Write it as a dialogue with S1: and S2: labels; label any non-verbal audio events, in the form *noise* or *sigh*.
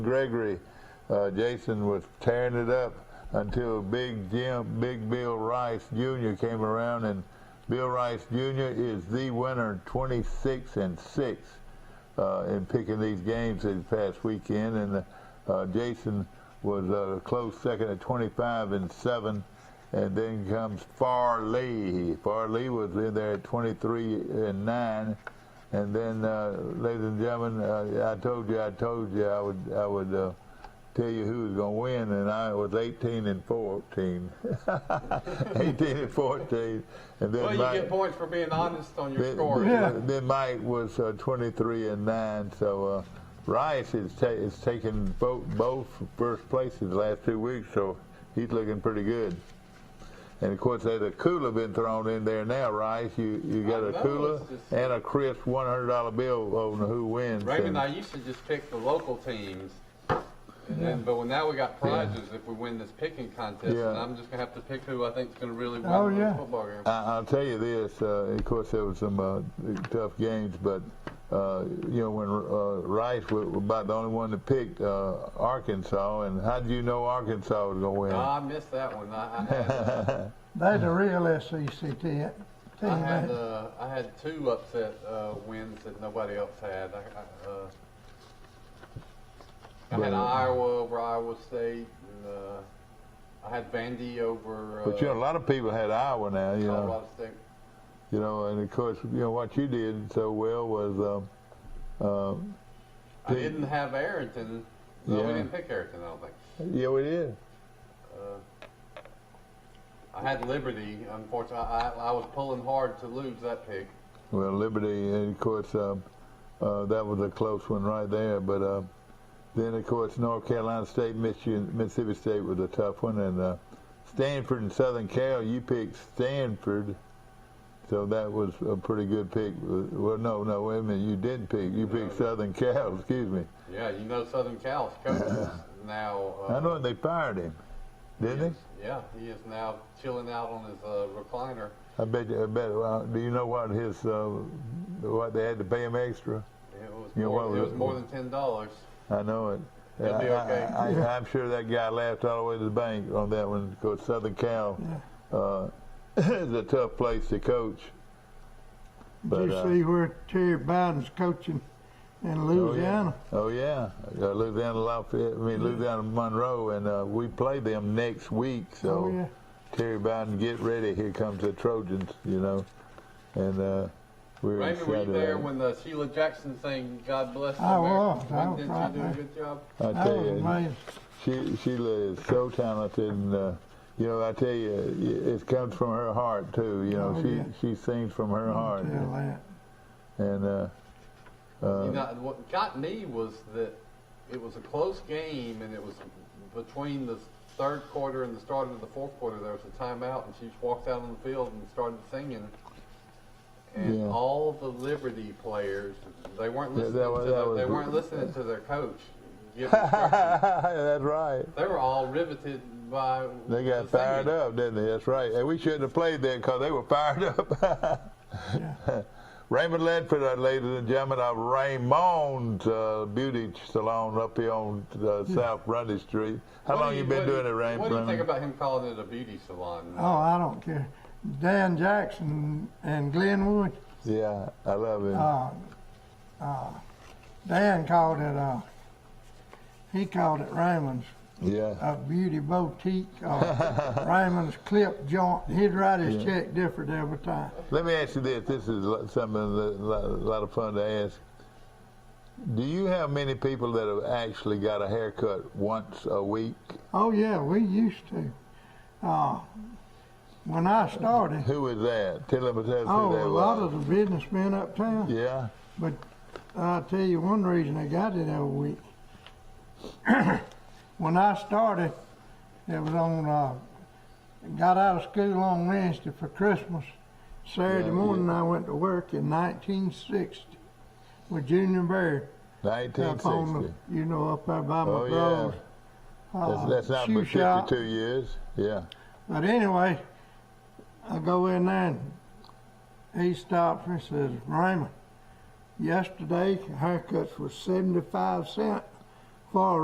S1: Gregory, uh, Jason was tearing it up until Big Jim, Big Bill Rice Jr. came around, and Bill Rice Jr. is the winner, 26 and six, uh, in picking these games this past weekend, and uh, Jason was uh, close second at 25 and seven. And then comes Farley. Farley was in there at 23 and 9. And then, uh, ladies and gentlemen, uh, I told you, I told you, I would, I would uh, tell you who was going to win, and I was 18 and 14. *laughs* 18 and 14. And then
S2: Well, you
S1: Mike,
S2: get points for being honest on your
S1: then,
S2: score.
S1: then- then Mike was uh, 23 and 9. So uh, Rice is, ta- is taking both, both first places the last two weeks, so he's looking pretty good. And of course, there's a cooler been thrown in there now, Rice. You you got
S2: I
S1: a
S2: know,
S1: cooler
S2: it's just-
S1: and a crisp one hundred dollar bill on who wins.
S2: Raymond
S1: and-
S2: and I used to just pick the local teams. And then, but now we got prizes if we win this picking contest,
S1: Yeah.
S2: and I'm just gonna have to pick who I think's gonna really win
S3: Oh,
S2: this
S3: yeah.
S2: football game.
S1: I, I'll tell you this. Uh, of course, there was some uh, tough games, but uh, you know when uh, Rice was about the only one to pick uh, Arkansas, and how did you know Arkansas was going to win?
S2: Oh, I missed that one. I, I
S3: *laughs*
S2: had,
S3: They're the real SEC team.
S2: I had,
S3: ain't
S2: uh, I had two upset uh, wins that nobody else had. I, I, uh, I had
S1: Well-
S2: Iowa over Iowa State, and uh, I had Vandy over.
S1: *laughs*
S2: Uh,
S1: but you know, a lot of people had Iowa now. You know,
S2: Colorado State.
S1: you know, and of course, you know what you did so well was. Uh, uh,
S2: I
S1: Did-
S2: didn't have Arrington. No,
S1: Yeah.
S2: we didn't pick Arrington. I don't think.
S1: yeah, we did.
S2: I had Liberty. Unfortunately, I, I I was pulling hard to lose that pick.
S1: Well, Liberty, and of course, um, uh, that was a close one right there. But uh, then, of course, North Carolina State, Michigan, Mississippi State was a tough one, and uh, Stanford and Southern Cal. You picked Stanford, so that was a pretty good pick. Well, no, no, wait a minute, you didn't pick. You picked Southern Cal. *laughs* Excuse me.
S2: Yeah, you know Southern
S1: *laughs*
S2: Cal's coach is now. Uh,
S1: I know they fired him, didn't
S2: he
S1: they?
S2: is- Yeah, he is now chilling out on his uh, recliner.
S1: I bet. You, I bet. Well, do you know what his uh, what they had to pay him extra?
S2: It was
S1: Yeah,
S2: more,
S1: well,
S2: it was
S1: uh,
S2: more than ten dollars.
S1: I know it.
S2: He'll be okay.
S1: I, I, am sure that guy laughed all the way to the bank on that one because Southern Cal uh, *laughs* is a tough place to coach.
S3: Did
S1: But,
S3: you
S1: uh,
S3: see where Terry Biden's coaching in Louisiana?
S1: Oh yeah, uh, Louisiana Lafayette. I mean Louisiana Monroe, and uh, we play them next week. So
S3: Oh, yeah.
S1: Terry Biden, get ready. Here comes the Trojans. You know, and uh, we're
S2: Raymond, were you
S1: excited
S2: there
S1: about it.
S2: when the Sheila Jackson thing? God bless
S3: I
S2: America.
S3: was. I was
S2: Didn't
S3: right
S2: she do a
S3: there.
S2: good job?
S1: I
S3: That
S1: tell
S3: was
S1: you,
S3: amazing.
S1: She, Sheila is so talented, and uh, you know, I tell you, it- it comes from her heart too. You know,
S3: Oh,
S1: she
S3: yeah.
S1: she sings from her heart,
S3: Tell that.
S1: and
S3: *laughs*
S1: uh,
S2: you know, what got me was that it was a close game, and it was between the third quarter and the start of the fourth quarter. There was a timeout, and she just walked out on the field and started singing. And
S1: Yeah.
S2: all the Liberty players, they weren't
S1: Yeah,
S2: listening.
S1: that was-
S2: to
S1: that
S2: their, they
S1: was-
S2: weren't listening to
S1: *laughs*
S2: their coach. give instructions.
S1: that's right.
S2: they were all riveted by.
S1: They got
S2: the
S1: fired
S2: singing.
S1: up, didn't they? That's right. And we shouldn't have played that because they were fired
S3: *laughs*
S1: up. *laughs* Raymond Ledford, our ladies and gentlemen, of Raymond's uh, Beauty Salon up here on uh,
S3: Hmm.
S1: South Grundy Street. How
S2: What do
S1: long you been
S2: what do
S1: doing it, Raymond?
S2: What do you think about him calling it a beauty salon?
S3: Oh, I don't care. Dan Jackson and Glenwood.
S1: yeah, I love it.
S3: Uh, uh, Dan called it. Uh, he called it Raymond's
S1: yeah.
S3: a beauty boutique.
S1: *laughs*
S3: Uh, Raymond's clip joint. He'd write his check different every time.
S1: Let me ask you this. This is lo- something a lo- lot of fun to ask. Do you have many people that have actually got a haircut once a week?
S3: Oh yeah, we used to. Uh, when I started,
S1: Who is that? Tell them tell us
S3: oh,
S1: who that
S3: a lot
S1: was.
S3: of the businessmen uptown.
S1: yeah.
S3: But I'll tell you one reason I got it every week. *coughs* when I started, it was on, uh, got out of school on Wednesday for Christmas. Saturday
S1: Yeah,
S3: morning, I went to work in 1960 with Junior Bear up on
S1: 1960.
S3: the, you know, up there by my
S1: Oh, yeah.
S3: brother's. uh,
S1: That's, that's not
S3: shoe
S1: but 52
S3: shop.
S1: years. Yeah.
S3: But anyway, I go in there and he stops me and says, Raymond, yesterday haircuts was 75 cents for a